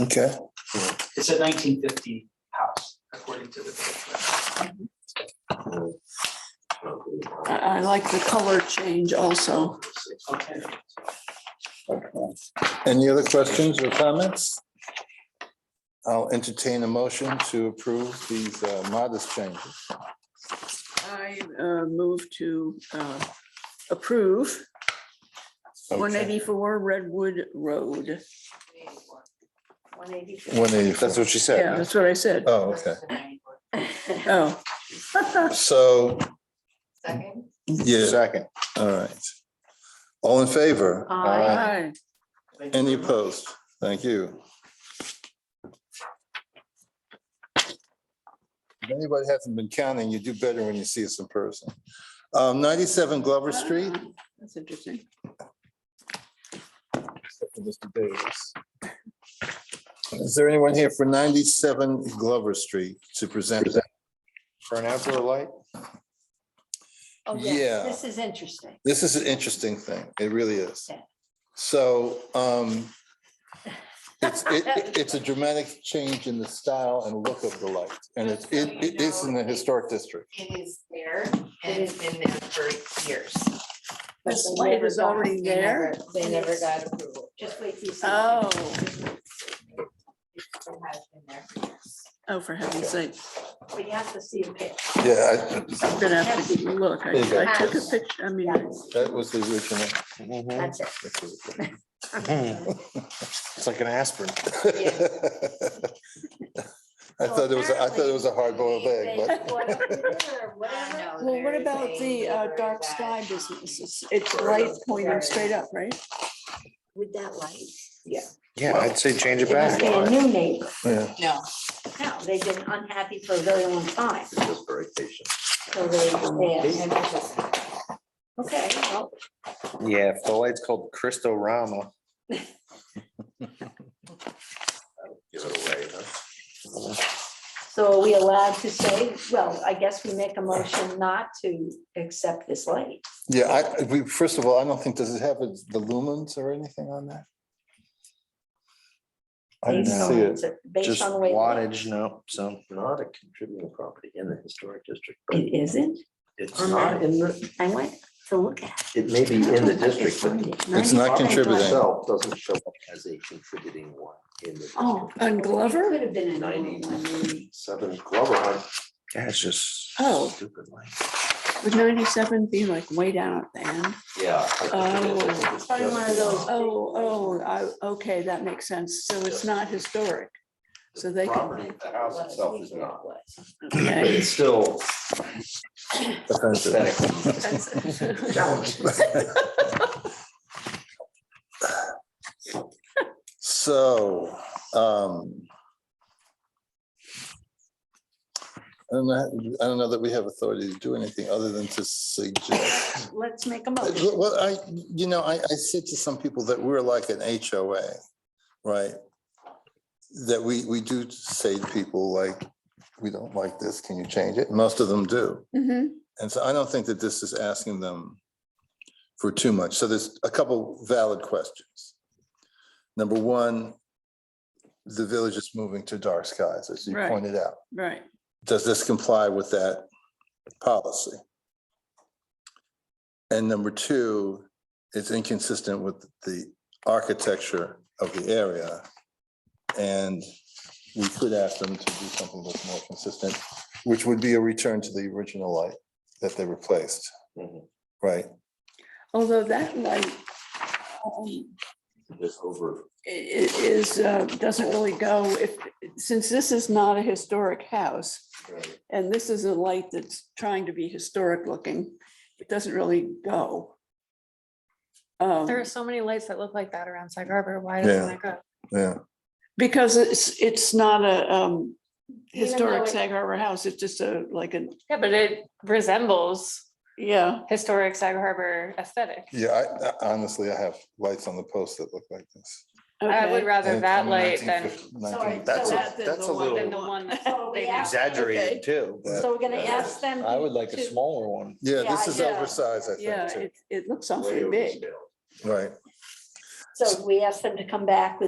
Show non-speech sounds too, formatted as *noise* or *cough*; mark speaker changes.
Speaker 1: Okay,
Speaker 2: It's a nineteen fifty house, according to the. picture.
Speaker 3: I, I like the color change also.
Speaker 2: Okay.
Speaker 1: any other questions or comments? I'll entertain a motion to approve these uh, modest changes.
Speaker 3: I uh, move to uh, approve one
Speaker 1: Okay.
Speaker 3: eighty-four Redwood Road.
Speaker 4: One eighty-four.
Speaker 1: 184.
Speaker 5: That's what she
Speaker 3: Yeah,
Speaker 5: said.
Speaker 3: that's what I said.
Speaker 1: Oh, okay.
Speaker 3: Oh.
Speaker 1: *laughs* So,
Speaker 4: Second.
Speaker 1: yeah,
Speaker 5: Second.
Speaker 1: all right. All in favor?
Speaker 4: Aye.
Speaker 1: uh,
Speaker 3: Aye.
Speaker 2: Thank you
Speaker 1: Any
Speaker 2: very much.
Speaker 1: opposed? Thank you. If anybody hasn't been counting, you do better when you see us in person. Um, ninety-seven Glover Street.
Speaker 3: That's interesting.
Speaker 1: except for Mr. Davis. Is there anyone here for ninety-seven Glover Street to present?
Speaker 5: For an outdoor light?
Speaker 4: Oh, yes,
Speaker 1: Yeah.
Speaker 4: this is interesting.
Speaker 1: This is an interesting thing. It really is.
Speaker 4: Yeah.
Speaker 1: So um, it's, it- it- it's a dramatic change in the style and look of the light. And it's, it it is in the historic district.
Speaker 6: It is there and it's been there for years.
Speaker 3: The
Speaker 6: But
Speaker 3: slide is already there.
Speaker 6: They never got approval.
Speaker 4: Just wait till you see.
Speaker 3: Oh,
Speaker 6: It has been there for years.
Speaker 3: oh, for heaven's sake.
Speaker 4: But you have to see a picture.
Speaker 1: Yeah, I-
Speaker 3: I'm gonna have to look. I
Speaker 1: There you go.
Speaker 3: I took a picture, I mean,
Speaker 4: Yes,
Speaker 1: that was the *laughs* original.
Speaker 5: Mm-hmm.
Speaker 4: That's it.
Speaker 5: It's like an aspirin.
Speaker 1: I thought it was, I thought it was a hard-boiled egg,
Speaker 4: They-
Speaker 1: but.
Speaker 4: whatever,
Speaker 6: I
Speaker 4: whatever.
Speaker 6: know
Speaker 3: well, what
Speaker 6: there's
Speaker 3: about
Speaker 6: a
Speaker 3: the uh,
Speaker 6: neighbor
Speaker 3: dark
Speaker 6: that-
Speaker 3: sky businesses? It's light pointing straight up, right?
Speaker 4: With that light.
Speaker 5: Yeah, I'd say change it
Speaker 4: It must
Speaker 5: back.
Speaker 4: be a new neighbor.
Speaker 1: *laughs* Yeah.
Speaker 6: No,
Speaker 4: No, they've been unhappy for a very long time.
Speaker 7: Just very patient.
Speaker 4: So they, they,
Speaker 6: and it's just-
Speaker 4: okay, well,
Speaker 5: Yeah, if the light's called Cristo
Speaker 7: *laughs*
Speaker 5: Rama.
Speaker 7: Give it away, huh?
Speaker 4: so are we allowed to say, well, I guess we make a motion not to accept this light.
Speaker 1: Yeah, I, we, first of all, I don't think, does it have the lumens or anything on that? I didn't
Speaker 4: Based on-
Speaker 1: see it.
Speaker 4: Based
Speaker 5: Just
Speaker 4: on the way. it looks.
Speaker 5: wattage, no, so.
Speaker 7: Not a contributing property in the historic district. but
Speaker 4: It isn't.
Speaker 7: It's
Speaker 4: I'm
Speaker 7: not in the,
Speaker 4: I went to look at. it.
Speaker 7: it may be in the
Speaker 4: I could
Speaker 7: district, but
Speaker 4: find
Speaker 7: the
Speaker 4: it.
Speaker 1: It's not
Speaker 4: Ninety-five.
Speaker 7: property
Speaker 1: contributing.
Speaker 7: itself doesn't show up as a contributing one in the
Speaker 4: Oh.
Speaker 3: On Glover?
Speaker 4: Could have been in
Speaker 7: Ninety.
Speaker 4: ninety.
Speaker 7: seven Glover Hunt.
Speaker 5: Yeah, it's just.
Speaker 3: Oh.
Speaker 7: Stupid light.
Speaker 3: Would ninety-seven be like way down at the end?
Speaker 7: Yeah. I think it is. I think it's
Speaker 4: Probably
Speaker 7: just
Speaker 4: Oh. one of
Speaker 7: in-
Speaker 4: those.
Speaker 3: Oh, oh, I, okay, that makes sense. So it's not historic. So they
Speaker 7: The
Speaker 3: can-
Speaker 7: property, the house itself is not, but
Speaker 3: Okay.
Speaker 5: *laughs*
Speaker 7: it's still
Speaker 1: Offensive.
Speaker 7: aesthetic.
Speaker 1: *laughs* So, um. I don't know, I don't know that we have authority to do anything other than to suggest.
Speaker 4: *laughs* Let's make a motion.
Speaker 1: Well, I, you know, I, I said to some people that we're like an HOA, right? That we, we do say to people like, we don't like this, can you change it? Most of them do.
Speaker 3: Mhm.
Speaker 1: And so I don't think that this is asking them for too much. So there's a couple valid questions. Number one, the village is moving to dark skies, as you
Speaker 3: Right.
Speaker 1: pointed out.
Speaker 3: Right.
Speaker 1: Does this comply with that policy? And number two, it's inconsistent with the architecture of the area. And we could ask them to do something that's more consistent, which would be a return to the original light that they replaced,
Speaker 7: Mhm.
Speaker 1: right?
Speaker 3: Although that light um,
Speaker 7: Just over.
Speaker 3: i- i- is, uh, doesn't really go, if, since this is not a historic house,
Speaker 7: Right.
Speaker 3: and this is a light that's trying to be historic looking, it doesn't really go. Um,
Speaker 8: There are so many lights that look like that around Sag Harbor. Why
Speaker 1: Yeah.
Speaker 8: doesn't that go?
Speaker 1: Yeah,
Speaker 3: Because it's, it's not a um,
Speaker 8: Even though
Speaker 3: historic
Speaker 8: it-
Speaker 3: Sag Harbor house, it's just a, like an,
Speaker 8: Yeah, but it resembles
Speaker 3: yeah,
Speaker 8: historic Sag Harbor aesthetic.
Speaker 1: yeah, I- I honestly, I have lights on the post that look like this.
Speaker 8: I would
Speaker 3: okay.
Speaker 8: rather that light than,
Speaker 1: 1950
Speaker 4: Sorry, so
Speaker 5: That's, a-
Speaker 4: that-
Speaker 5: that's a
Speaker 8: than the
Speaker 5: little
Speaker 8: one that
Speaker 4: So we
Speaker 8: they
Speaker 4: have-
Speaker 8: have.
Speaker 5: exaggerated too. but
Speaker 4: So we're gonna ask them.
Speaker 5: I would like a
Speaker 4: to-
Speaker 5: smaller one.
Speaker 1: Yeah,
Speaker 4: Yeah,
Speaker 1: this
Speaker 4: I
Speaker 1: is
Speaker 4: know.
Speaker 1: oversized, I
Speaker 3: Yeah,
Speaker 1: think,
Speaker 3: it, it looks
Speaker 7: way
Speaker 3: awfully big.
Speaker 7: overscaled.
Speaker 1: too. Right.
Speaker 4: So we ask them to come back with